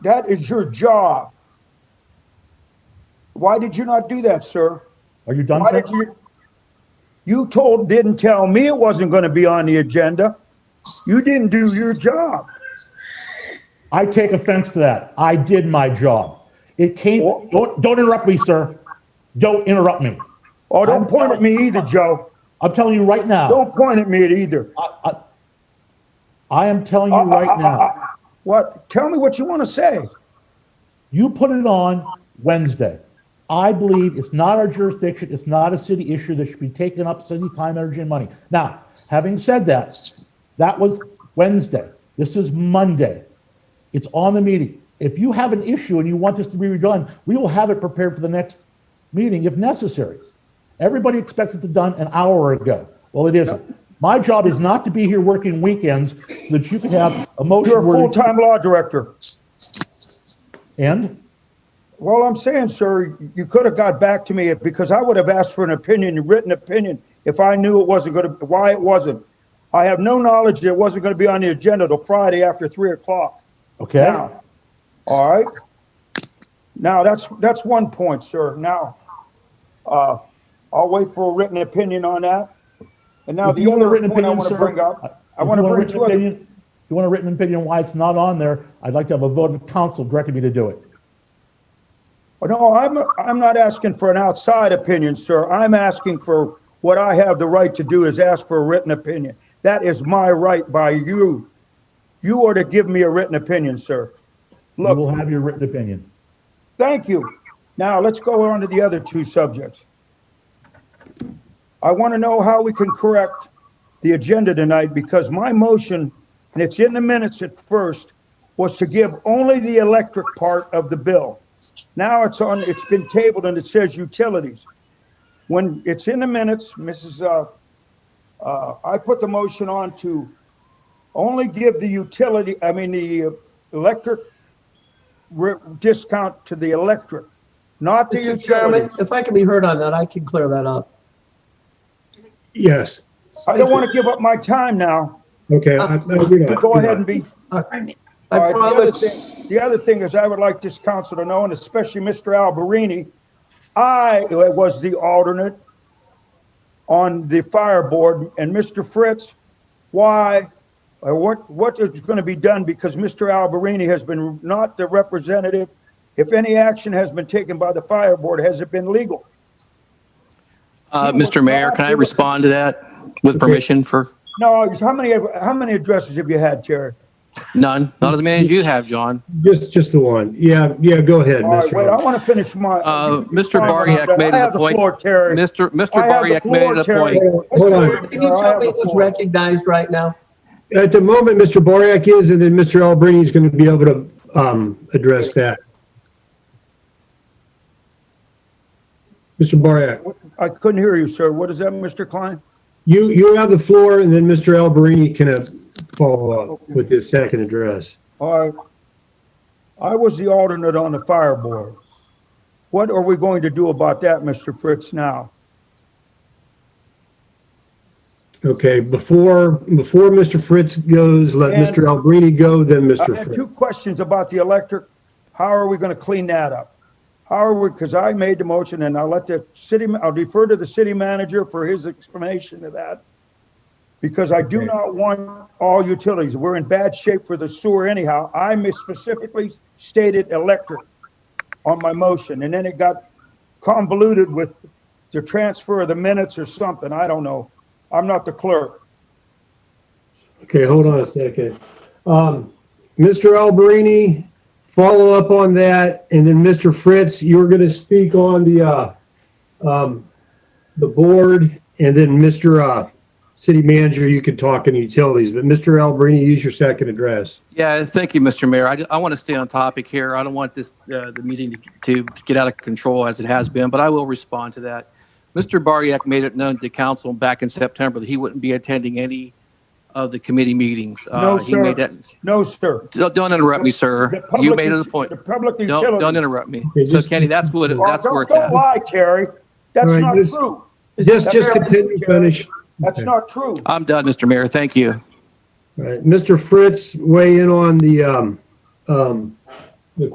That is your job. Why did you not do that, sir? Are you done, Why sir? did you? You told, didn't tell me it wasn't going to be on the agenda. You didn't do your job. I take offense to that. I did my job. It came, Wha- don't, don't interrupt me, sir. Don't interrupt me. Oh, don't I'm- point at me either, Joe. I'm telling you right now, Don't point at me either. I am telling Uh, you right now, What? Tell me what you want to say. you put it on Wednesday. I believe it's not our jurisdiction, it's not a city issue that should be taken up city time, energy, and money. Now, having said that, that was Wednesday. This is Monday. It's on the meeting. If you have an issue and you want this to be redone, we will have it prepared for the next meeting if necessary. Everybody expects it to done an hour ago. Well, it isn't. My job is not to be here working weekends so that you can have a motion You're a where- full-time law director. And Well, I'm saying, sir, you could have got back to me because I would have asked for an opinion, a written opinion, if I knew it wasn't going to, why it wasn't. I have no knowledge that it wasn't going to be on the agenda till Friday after three o'clock. okay, Now, all right? Now, that's, that's one point, sir. Now, uh, I'll wait for a written opinion on that. And now If the you want a other written point I opinion, want to sir, bring up, I if want to you a bring written two other, opinion- If you want a written opinion why it's not on there, I'd like to have a vote of council directing me to do it. Oh, no, I'm, I'm not asking for an outside opinion, sir. I'm asking for what I have the right to do is ask for a written opinion. That is my right by you. You are to give me a written opinion, sir. You Look- will have your written opinion. Thank you. Now, let's go on to the other two subjects. I want to know how we can correct the agenda tonight because my motion, and it's in the minutes at first, was to give only the electric part of the bill. Now it's on, it's been tabled and it says utilities. When it's in the minutes, Mrs., uh, uh, I put the motion on to only give the utility, I mean, the uh, electric re- discount to the electric, not the Mr. Chairman, utilities. if I can be heard on that, I can clear that up. Yes, I don't want to give up my time now. okay. I- no, you're But not, go you're ahead not. and be, All I right, the other promise, thing- The other thing is, I would like this council to know, and especially Mr. Alberini, I was the alternate on the fire board, and Mr. Fritz, why, or what, what is going to be done? Because Mr. Alberini has been not the representative. If any action has been taken by the fire board, has it been legal? Uh, Mr. Mayor, can I respond to that with permission for No, how many, how many addresses have you had, Terry? none? Not as many as you have, John. Just, just the one. Yeah, yeah, go ahead, All right, Mr. wait, I Hall. want to finish my. Uh, Mr. Fine, Bariak I made it a have the point- floor, Terry. Mr. Mr. I have the Bariak made floor, it a Terry. point. Hold on. can you I tell have me the who's floor. recognized right now? At the moment, Mr. Boryak is, and then Mr. Albertini is going to be able to um, address that. Mr. Boryak, I couldn't hear you, sir. What is that, Mr. Klein? you, you have the floor, and then Mr. Albertini can uh, follow up with his second address. All right. I was the alternate on the fire board. What are we going to do about that, Mr. Fritz, now? Okay, before, before Mr. Fritz goes, let And- Mr. Albertini go, then I Mr. have Fritz. two questions about the electric. How are we going to clean that up? How are we, because I made the motion and I'll let the city, ma- I'll defer to the city manager for his explanation of that. Because I do not want all utilities. We're in bad shape for the sewer anyhow. I mis- specifically stated electric on my motion and then it got convoluted with the transfer of the minutes or something. I don't know. I'm not the clerk. Okay, hold on a second. Um, Mr. Alberini, follow up on that, and then Mr. Fritz, you're gonna speak on the, uh, um, the board, and then Mr., uh, city manager, you can talk in utilities, but Mr. Alberini, use your second address. Yeah, thank you, Mr. Mayor. I, ju- I want to stay on topic here. I don't want this, uh, the meeting to, to get out of control as it has been, but I will respond to that. Mr. Bariak made it known to council back in September that he wouldn't be attending any of the committee meetings. No, Uh, he made sir. that- No, sir. Don't don't interrupt me, The sir. You public made it a ut- point. The public Don't, don't utilities. interrupt me. Okay, So just- Kenny, that's what, Oh, that's don't- where it's at. Don't lie, Terry. That's All right, not just- true. Just, just continue, Chair. finish. That's Okay. not true. I'm done, Mr. Mayor. Thank you. All right, Mr. Fritz, weigh in on the, um, um,